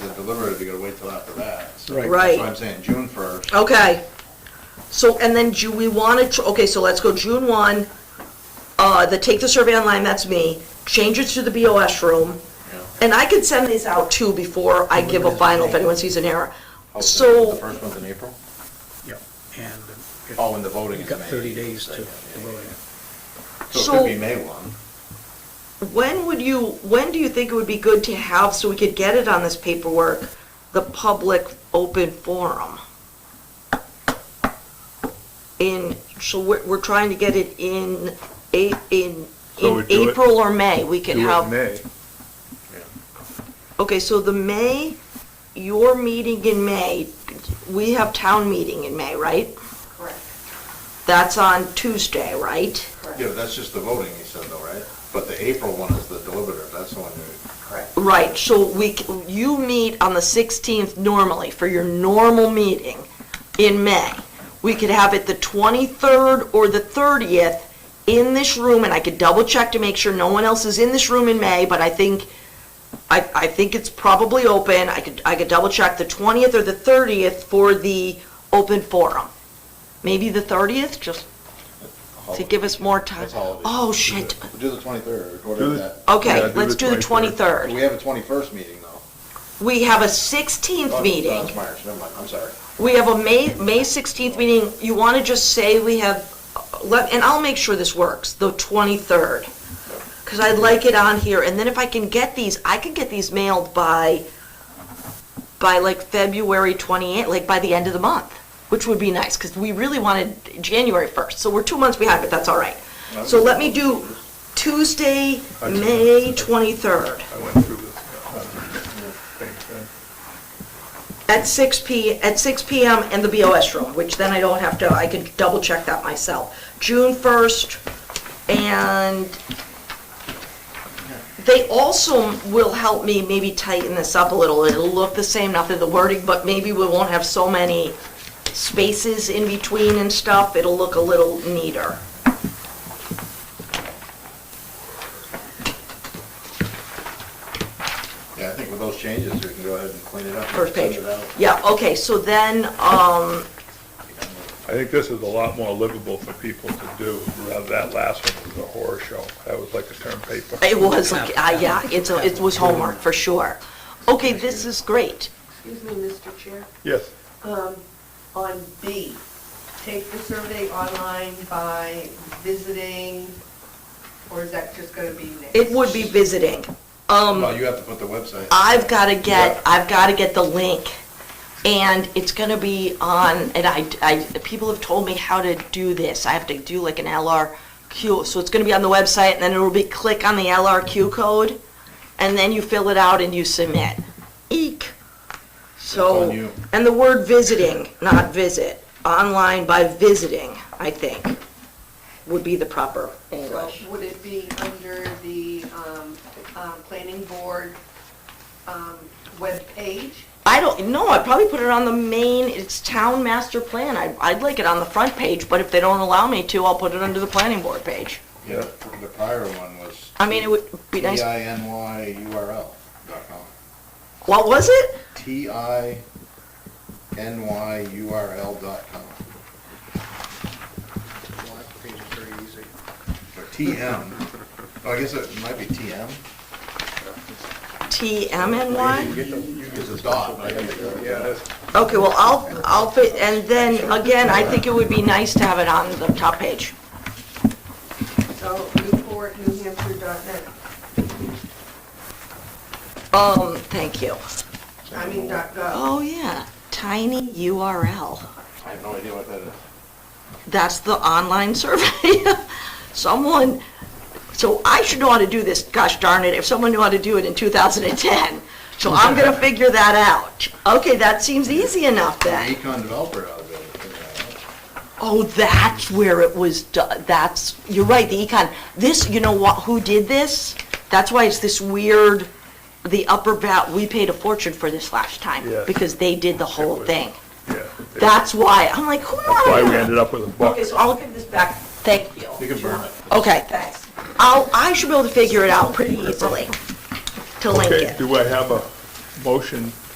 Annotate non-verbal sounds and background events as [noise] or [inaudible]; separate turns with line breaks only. deliberate if you're gonna wait till after that. So
Right.
That's
Right.
why I'm saying June first.
Okay. So, and then do we want to, okay, so let's go June 1, uh, the take the survey online, that's me, change it to the BOS room. And I can send these out too before I give a final if anyone sees an error.
The
So,
first one's in April?
Yeah, and. it-
Oh, and the voting
You've
is
got
May.
30 days to
Yeah,
to
yeah,
vote.
So it
So-
could be May one.
when would you, when do you think it would be good to have, so we could get it on this paperwork, the public open forum? In, so we're, we're trying to get it in, a- in,
So we
in
do it-
April or May, we could
Do it in
have.
May.
Okay, so the May, your meeting in May, we have town meeting in May, right?
Correct,
That's on Tuesday, right?
Yeah,
correct,
but that's just the voting, you said though, right? But the April one is the deliberative, that's the one you,
correct.
Right, so we, c- you meet on the 16th normally for your normal meeting in May. We could have it the 23rd or the 30th in this room, and I could double check to make sure no one else is in this room in May, but I think, I, I think it's probably open. I could, I could double check the 20th or the 30th for the open forum. Maybe the 30th, just to give us more time.
That's holiday.
Oh, shit.
do the twenty-third,
Do
whatever
the-
that.
Yeah,
Okay,
do
let's
the
do the
23rd.
23rd.
We have a twenty-first meeting though.
We have a
Oh,
16th
no,
meeting.
That's Myers, never mind, I'm sorry.
We have a May, May 16th meeting. You want to just say we have, let- and I'll make sure this works, the 23rd. Because I'd like it on here. And then if I can get these, I can get these mailed by, by like February 28th, like by the end of the month, which would be nice because we really wanted January 1st. So we're two months behind, but that's all right. So let me do Tuesday, May 23rd.
I went through this. Same thing.
At 6 P, at 6 PM in the BOS room, which then I don't have to, I can double check that myself. June 1st, and they also will help me maybe tighten this up a little. It'll look the same, nothing the wording, but maybe we won't have so many spaces in between and stuff. It'll look a little neater.
Yeah, I think with those changes, we can go ahead and clean it up. and
First
send
page.
it out.
Yeah, okay, so then, um,
I think this is a lot more livable for people to do, rather that last one was a horror show. That was like a term paper.
it was, like, uh, yeah, it's, a- it was homework for sure. Okay, this is great.
Excuse me, Mr. Chair.
Yes,
Um, on B, take the survey online by visiting, or is that just gonna be next?
It would be visiting.
Well,
Um,
you have to put the website.
I've gotta
Yeah.
get, I've gotta get the link. And it's gonna be on, and I, I, people have told me how to do this. I have to do like an LRQ. So it's gonna be on the website and then it'll be click on the LRQ code and then you fill it out and you submit. Eek.
It's
So,
on you.
and the word visiting, not visit, online by visiting, I think, would be the proper
So
English.
would it be under the, um, um, planning board, um, webpage?
I don't know. I'd probably put it on the main, it's town master plan. I, I'd like it on the front page, but if they don't allow me to, I'll put it under the planning board page.
Yeah, the prior one was.
I mean, it would be nice.
T-I-N-Y-U-R-L dot com.
What was it?
T-I-N-Y-U-R-L dot com.
Page is very easy.
Or TM. Oh, I guess it might be TM.
TMNY?
It's a dot, but I think it's-
yeah, that's,
Okay, well, I'll, I'll fit, and then again, I think it would be nice to have it on the top page.
So newportnewhampshire.net,
Um, thank you.
I mean, dot gov.
Oh, yeah, tiny URL.
I have no idea what that is.
That's the online survey. [laughs] Someone, so I should know how to do this, gosh darn it, if someone knew how to do it in 2010. So
[laughs]
I'm gonna figure that out. Okay, that seems easy enough
An
then.
Econ developer out of it.
Oh, that's where it was, do- that's, you're right, the econ. This, you know what, who did this? That's why it's this weird, the upper bat, we paid a fortune for this last time,
Yes.
because they did the whole
was-
thing.
yeah.
That's why, I'm like, who?
That's why we ended up with a book.
Okay, so I'll give this back, thank you.
You can burn it.
Okay.
Thanks.
I'll, I should be able to figure it out pretty easily to link
Okay,
it.
do I have a motion